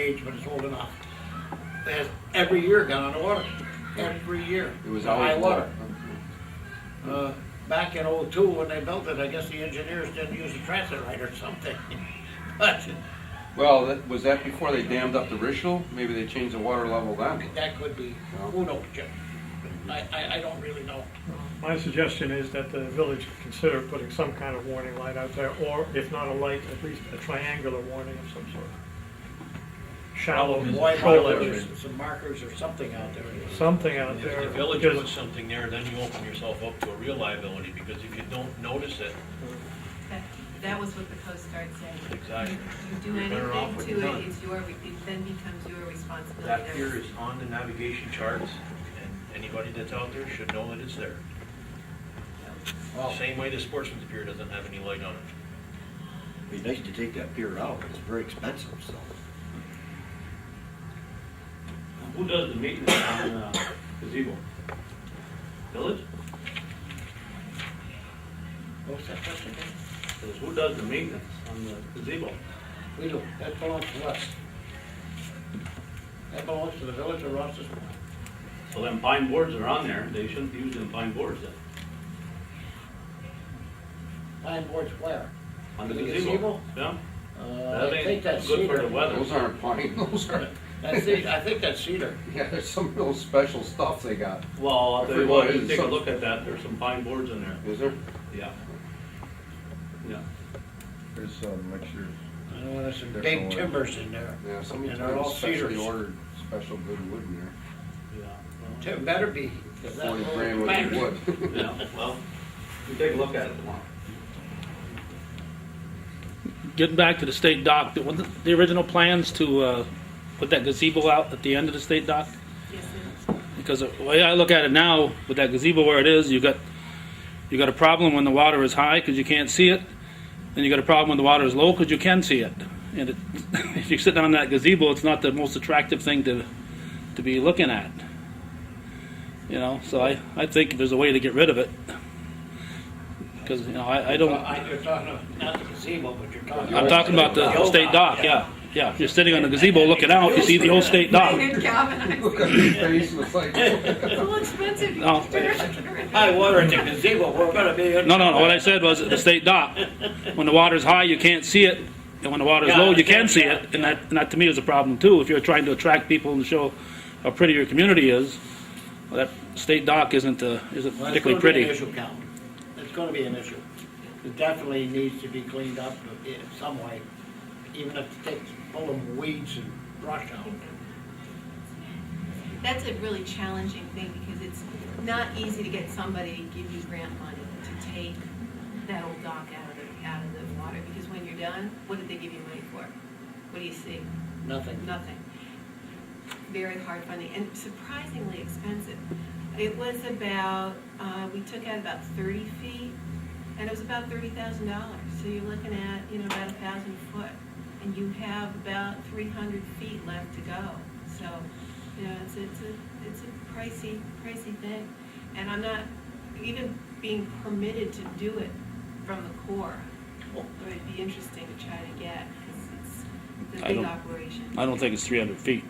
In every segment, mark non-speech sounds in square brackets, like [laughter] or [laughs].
age, but it's old enough, has every year gone underwater, every year. It was The high always water. Uh, Back in oh-two, when they built it, I guess the engineers didn't use a transit right or something. [laughs] But Well, that, was that before they dammed up the Richel? Maybe they changed the water level then. that could be, who knows, Jim? I, I, I don't really know. My suggestion is that the village consider putting some kind of warning light out there, or if not a light, at least a triangular warning of some sort. Shallow, Why control bother? area, There's some markers or something out there. something out If there. the village because- puts something there, then you open yourself up to a real liability, because if you don't notice it, That, that was what the Coast Guard said. Exactly. You do You're better off anything with to none. it, it's your, it then becomes your responsibility. that There pier was- is on the navigation charts, and anybody that's out there should know that it's there. Well, Same way the sportsman's pier doesn't have any light on it. it'd be nice to take that pier out, but it's very expensive, so. Who does the maintenance on uh, gazebo? Village? What's that question again? Says, Who does the maintenance on the gazebo? We do, that belongs to us. That belongs to the village of Ross's. So them pine boards are on there, they shouldn't be using pine boards then, Pine boards where? on the The gazebo. gazebo? Yeah, Uh, that I think ain't that's good for the cedar. weather. Those aren't pine, [laughs] those are, That's cedar, I think that's cedar. yeah, there's some real special stuff they got, Well, I'll tell you If what, it you is, take a some- look at that, there's some pine boards in there, is there? yeah. Yeah, There's some mixtures. I know there's some There's no big way. timbers in there. Yeah, somebody And they're all specially cedars. ordered special good wood in there, yeah. well, Tim better be. 'cause that forty whole grand worth bank- of wood. [laughs] Yeah, well, you take a look at it tomorrow. Getting back to the state dock, the, the original plans to, uh, put that gazebo out at the end of the state dock? [laughs] Yes, it- Because the way I look at it now, with that gazebo where it is, you got, you got a problem when the water is high, because you can't see it. And you got a problem when the water is low, because you can see it. And it, [laughs] if you're sitting on that gazebo, it's not the most attractive thing to, to be looking at. You know, so I, I think there's a way to get rid of it. Because, you know, I, I Uh, don't, I- You're talking, about- not the gazebo, but you're talking. I'm talking about The the old state dock, yeah. Yeah, if you're sitting on the gazebo looking out, you see the old state dock. David Galvin, Look at his face, it's like, [laughs] it's a little expensive. you No. can turn it around. High water at the gazebo, we're gonna be. in- No, no, no, what I said was the state dock. When the water's high, you can't see it, and when the water's low, you can see it, and that, and that to me is a problem too. If you're trying to attract people and show how pretty your community is, well, that state dock isn't, uh, isn't Well, it's particularly gonna be an pretty. issue, Cal. It's gonna be an issue. It definitely needs to be cleaned up in some way, even if it takes pulling weeds and brush out. That's a really challenging thing, because it's not easy to get somebody to give you grant money to take that old dock out of the, out of the water, because when you're done, what did they give you money for? What do you see? Nothing. Nothing. Very hard funding and surprisingly expensive. It was about, uh, we took out about thirty feet and it was about thirty thousand dollars. So you're looking at, you know, about a thousand foot and you have about three hundred feet left to go. So, you know, it's, it's a, it's a pricey, pricey thing. And I'm not even being permitted to do it from the core. But it'd be interesting to try to get, because it's I the big don't- operation. I don't think it's three hundred feet.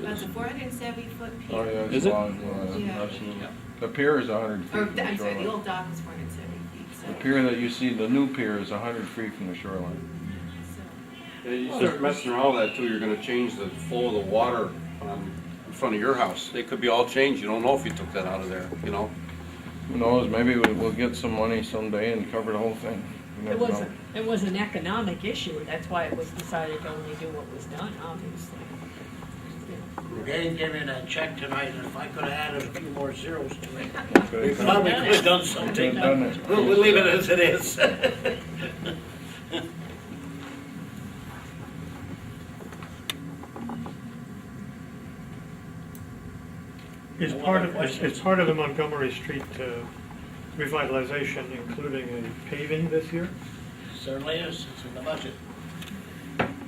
That's a four hundred and seventy foot pier. Oh, yeah. Is it's it? long, uh, Yeah. absolutely. The pier is hundred feet Or, from the I'm sorry, the shoreline. old dock is four hundred and seventy feet, so. The pier that you see, the new pier is hundred feet from the shoreline. so- Yeah, You start messing around with that too, you're gonna change the flow of the water um, in front of your house. They could be all changed, you don't know if you took that out of there, you know? Who knows, maybe we- we'll get some money someday and cover the whole thing. You It never was, know. it was an economic issue, that's why it was decided to only do what was done, obviously. They gave me that check tonight, and if I could have added a few more zeros to it, we Could've done probably could have done something. could've done it. We'll, we'll leave it as it is. Is part of, is is part of the Montgomery Street uh, revitalization including a paving this year? Certainly is, it's in the budget.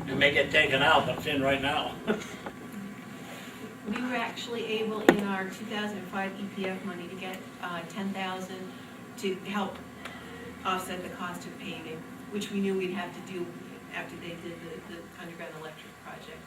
It may get taken out, but it's in right now. We were actually able in our two thousand and five EPF money to get, uh, ten thousand to help offset the cost of paving, which we knew we'd have to do after they did the, the underground electric project.